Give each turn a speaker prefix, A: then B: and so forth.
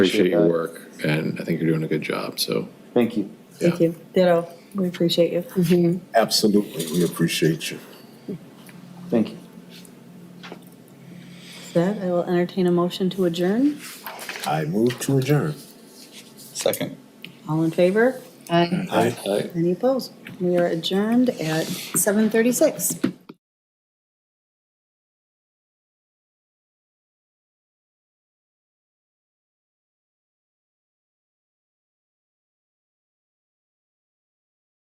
A: Appreciate your
B: that.
A: work, and I think you're doing a good job, so.
B: Thank you.
A: yeah.
C: Thank you. Ditto. We appreciate you.
D: Absolutely, we appreciate you.
B: Thank you.
C: That, I will entertain a motion to adjourn.
D: I move to adjourn.
E: Second.
C: All in favor?
F: Aye.
D: Aye.
C: Any opposed? We are adjourned at seven thirty-six.